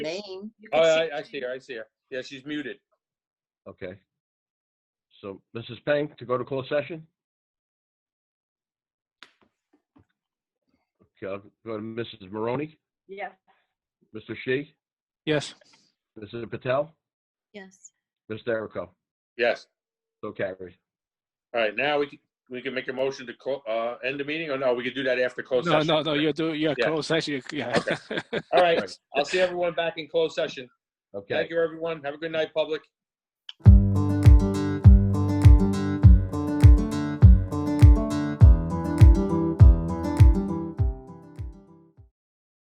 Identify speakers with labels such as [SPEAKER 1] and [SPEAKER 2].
[SPEAKER 1] name.
[SPEAKER 2] Oh, I, I see her, I see her. Yeah, she's muted.
[SPEAKER 3] Okay. So, Mrs. Peng, to go to closed session? Okay, I'll go to Mrs. Maroney,
[SPEAKER 4] Yes.
[SPEAKER 3] Mr. Shi,
[SPEAKER 5] Yes.
[SPEAKER 3] Mrs. Patel,
[SPEAKER 1] Yes.
[SPEAKER 3] Mr. Derico.
[SPEAKER 2] Yes.
[SPEAKER 3] So carried.
[SPEAKER 2] All right, now we can, we can make a motion to clo- uh, end the meeting, or no, we could do that after closed
[SPEAKER 5] No,
[SPEAKER 2] session.
[SPEAKER 5] no, no, you're doing, you're
[SPEAKER 2] Yeah.
[SPEAKER 5] closed session. Yeah.
[SPEAKER 2] All right, I'll see everyone back in closed session.
[SPEAKER 3] Okay.
[SPEAKER 2] Thank you, everyone. Have a good night, public.